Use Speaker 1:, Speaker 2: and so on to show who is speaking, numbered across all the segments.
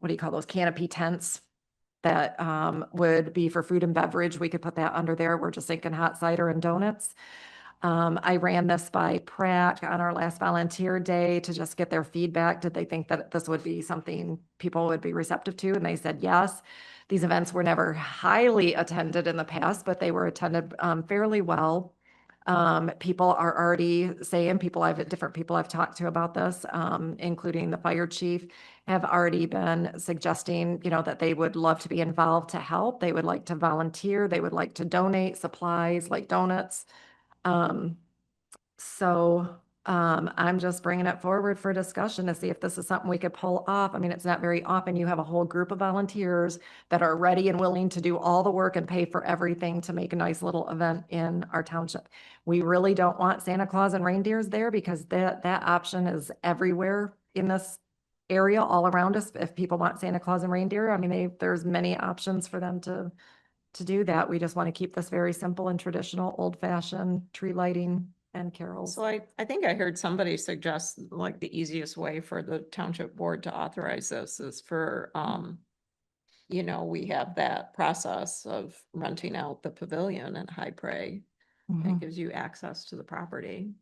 Speaker 1: what do you call those canopy tents? That um would be for food and beverage. We could put that under there. We're just thinking hot cider and donuts. Um, I ran this by Pratt on our last volunteer day to just get their feedback. Did they think that this would be something people would be receptive to? And they said yes. These events were never highly attended in the past, but they were attended um fairly well. Um, people are already saying, people I've, different people I've talked to about this, um, including the fire chief, have already been suggesting, you know, that they would love to be involved to help. They would like to volunteer. They would like to donate supplies like donuts. Um, so, um, I'm just bringing it forward for discussion to see if this is something we could pull off. I mean, it's not very often you have a whole group of volunteers that are ready and willing to do all the work and pay for everything to make a nice little event in our township. We really don't want Santa Claus and reindeers there because that, that option is everywhere in this area all around us. If people want Santa Claus and reindeer, I mean, they, there's many options for them to, to do that. We just want to keep this very simple and traditional, old fashioned tree lighting and carols.
Speaker 2: So I, I think I heard somebody suggest like the easiest way for the township board to authorize this is for, um, you know, we have that process of renting out the pavilion in High Prairie. That
Speaker 3: Mm-hmm.
Speaker 1: Mhm.
Speaker 2: gives you access to the property.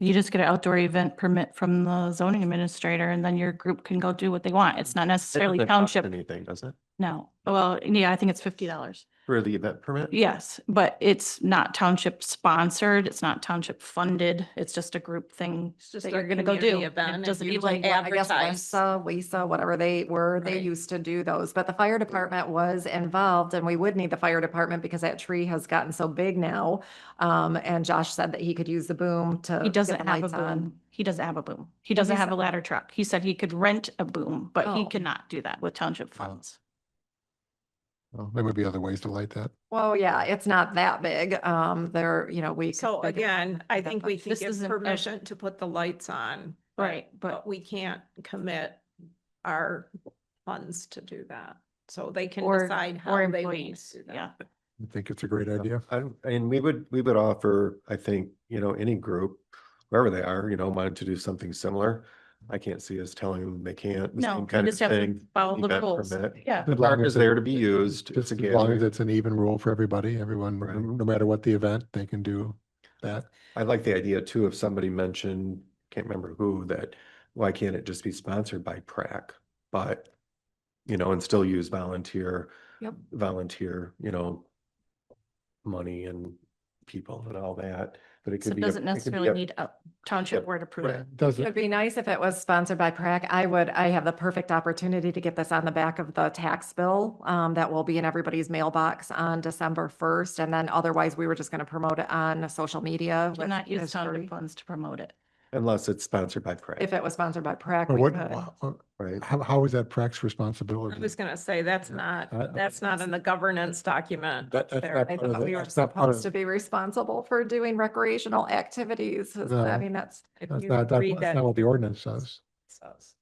Speaker 4: You just get an outdoor event permit from the zoning administrator and then your group can go do what they want. It's not
Speaker 3: It
Speaker 4: necessarily
Speaker 3: doesn't cost
Speaker 4: township,
Speaker 3: Anything, does it?
Speaker 4: no. Well, yeah, I think it's fifty dollars.
Speaker 3: For the event permit?
Speaker 4: Yes, but it's not township sponsored. It's not township funded. It's just a group thing
Speaker 2: It's just
Speaker 4: that
Speaker 2: a
Speaker 4: you're gonna go
Speaker 2: community
Speaker 4: do.
Speaker 2: event
Speaker 4: It
Speaker 2: and
Speaker 4: doesn't
Speaker 2: you
Speaker 4: be like,
Speaker 2: just
Speaker 1: I guess
Speaker 2: advertise.
Speaker 1: WISA, WISA, whatever they were, they
Speaker 2: Right.
Speaker 1: used to do those, but the fire
Speaker 4: Mm-hmm.
Speaker 1: department was involved and we would need the fire department because that tree has gotten so big now. Um, and Josh said that he could use the boom to.
Speaker 4: he
Speaker 1: get
Speaker 4: doesn't
Speaker 1: the
Speaker 4: have a
Speaker 1: lights on.
Speaker 4: boom. He doesn't have a boom. He
Speaker 1: Well,
Speaker 4: doesn't
Speaker 1: he
Speaker 4: have a
Speaker 1: said-
Speaker 4: ladder truck. He said he could rent a boom, but he
Speaker 1: Oh.
Speaker 4: cannot do that with township funds.
Speaker 5: Well, there would be other ways to light that.
Speaker 1: Well, yeah, it's not that big. Um, there, you know, we. could
Speaker 2: So
Speaker 1: figure-
Speaker 2: again, I
Speaker 1: that
Speaker 2: think
Speaker 1: much.
Speaker 2: we can
Speaker 4: This
Speaker 2: give
Speaker 4: isn't ev-
Speaker 2: permission to put the lights on.
Speaker 4: Right, but,
Speaker 2: But we can't commit our funds to do that. So they can
Speaker 4: Or-
Speaker 2: decide how
Speaker 4: or
Speaker 2: they want
Speaker 4: employees,
Speaker 2: to do that.
Speaker 4: yeah.
Speaker 5: I think it's a great idea.
Speaker 3: I, don't- and we would, we would offer, I think, you know, any group, wherever they are, you know, wanted to do something similar. I can't see us telling them they can't. the
Speaker 4: No,
Speaker 3: same
Speaker 4: you
Speaker 3: kind of
Speaker 4: just have to
Speaker 3: thing,
Speaker 4: follow the
Speaker 3: event
Speaker 4: rules.
Speaker 3: permit.
Speaker 4: yeah,
Speaker 5: As
Speaker 3: Park
Speaker 5: long
Speaker 3: is
Speaker 5: as it-
Speaker 3: there to be used. It's
Speaker 5: Just
Speaker 3: a
Speaker 5: as long as
Speaker 3: gathering.
Speaker 5: it's an even rule for everybody, everyone,
Speaker 3: Right.
Speaker 5: no matter what the event, they can do that.
Speaker 3: I like the idea too, if somebody mentioned, can't remember who, that why can't it just be sponsored by PrAC? But, you know, and still use volunteer,
Speaker 1: Yep.
Speaker 3: volunteer, you know, money and people and all that, but it
Speaker 4: so
Speaker 3: could
Speaker 4: it
Speaker 3: be. a-
Speaker 4: doesn't
Speaker 3: it could be
Speaker 4: necessarily
Speaker 3: a-
Speaker 4: need a township
Speaker 3: yeah,
Speaker 4: board
Speaker 3: right.
Speaker 4: approval.
Speaker 1: It'd
Speaker 5: Doesn't,
Speaker 1: be nice if it was sponsored by PrAC. I would, I have the perfect opportunity to get this on the back of the tax bill um, that will be in everybody's mailbox on December first. And then otherwise, we were just going to promote it on social media.
Speaker 4: Do
Speaker 1: with
Speaker 4: not use
Speaker 1: Ms.
Speaker 4: township
Speaker 1: Curry.
Speaker 4: funds to promote it.
Speaker 3: Unless it's sponsored by PrAC,
Speaker 1: If it was sponsored by PrAC.
Speaker 5: but
Speaker 1: we
Speaker 5: what,
Speaker 1: could.
Speaker 5: wha-
Speaker 3: right?
Speaker 5: how, how is that Prax's
Speaker 2: I
Speaker 5: responsibility?
Speaker 2: was gonna say, that's not,
Speaker 5: I- I-
Speaker 2: that's not in the governance document.
Speaker 5: That- that's
Speaker 2: there.
Speaker 5: not
Speaker 1: I
Speaker 5: part of
Speaker 1: thought
Speaker 5: the-
Speaker 1: we were
Speaker 5: that's not part of-
Speaker 1: supposed to be responsible for doing recreational activities. I
Speaker 5: No.
Speaker 1: mean, that's,
Speaker 2: If
Speaker 5: That's
Speaker 2: you
Speaker 5: not, that-
Speaker 2: read
Speaker 5: that's
Speaker 2: that,
Speaker 5: not what the
Speaker 2: it
Speaker 5: ordinance says.
Speaker 2: says.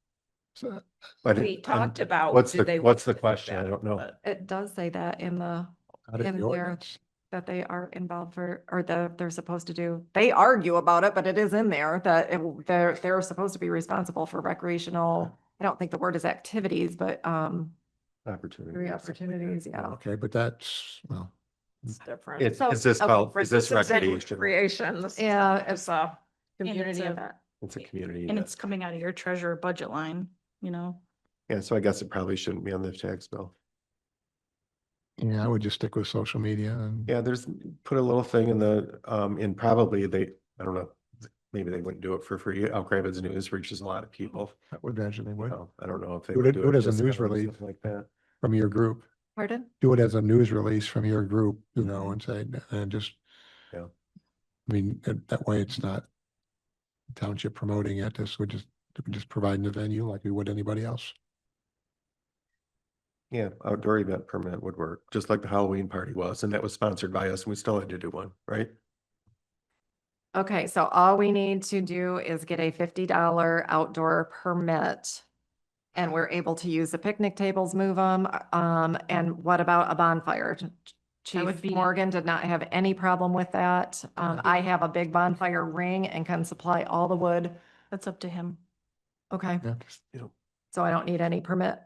Speaker 5: So,
Speaker 3: But
Speaker 2: We
Speaker 3: it- um,
Speaker 2: talked about.
Speaker 3: What's
Speaker 2: do
Speaker 3: the,
Speaker 2: they want
Speaker 3: what's the
Speaker 2: to do
Speaker 3: question? I
Speaker 2: that,
Speaker 3: don't know.
Speaker 2: but
Speaker 1: it does say that in the
Speaker 5: out of
Speaker 1: In
Speaker 5: the
Speaker 1: there.
Speaker 5: ordinance.
Speaker 1: that they are involved for, or the, they're supposed to do, they argue about it, but it is in there that it w- they're, they're supposed to be responsible for recreational, I don't think the word is activities, but, um,
Speaker 3: Opportunity.
Speaker 1: three
Speaker 3: or something like that.
Speaker 1: opportunities, yeah.
Speaker 5: Okay, but that's, well,
Speaker 2: It's different.
Speaker 3: It's,
Speaker 1: So-
Speaker 3: is this
Speaker 1: okay,
Speaker 3: called,
Speaker 1: for-
Speaker 3: is this
Speaker 2: This is been
Speaker 3: recreation?
Speaker 2: Creation. This is-
Speaker 1: Yeah,
Speaker 2: It's a
Speaker 4: And it's
Speaker 2: community
Speaker 4: a-
Speaker 2: event.
Speaker 3: It's a community.
Speaker 4: And
Speaker 3: event.
Speaker 4: it's coming out of your treasurer budget line, you know?
Speaker 3: Yeah, so I guess it probably shouldn't be on the tax bill.
Speaker 5: yeah, I would just stick with social media and.
Speaker 3: Yeah, there's, put a little thing in the, um, in probably they, I don't know, maybe they wouldn't do it for free. Elk Rapids News reaches a lot of people.
Speaker 5: I would imagine they
Speaker 3: you
Speaker 5: would,
Speaker 3: know, I don't know if they.
Speaker 5: Do
Speaker 3: would
Speaker 5: it-
Speaker 3: do
Speaker 5: do it as a
Speaker 3: just
Speaker 5: news
Speaker 3: out of
Speaker 5: release.
Speaker 3: something Like that.
Speaker 5: from your group,
Speaker 1: Pardon?
Speaker 5: do it as a news release from your group, you know, and say, and just.
Speaker 3: Yeah.
Speaker 5: I mean, that- that way it's not township promoting it, this would just, we just providing the venue like we would anybody else.
Speaker 3: Yeah, outdoor event permit would work, just like the Halloween party was, and that was sponsored by us and we still had to do one, right?
Speaker 1: Okay, so all we need to do is get a fifty dollar outdoor permit. And we're able to use the picnic tables, move them, um, and what about a bonfire? Ch- Chief
Speaker 4: would be-
Speaker 1: Morgan did not have any problem with that. Um, I have a big bonfire ring and can supply all the wood.
Speaker 4: That's up to him.
Speaker 1: Okay,
Speaker 5: Yeah, just
Speaker 1: so I don't need any permit.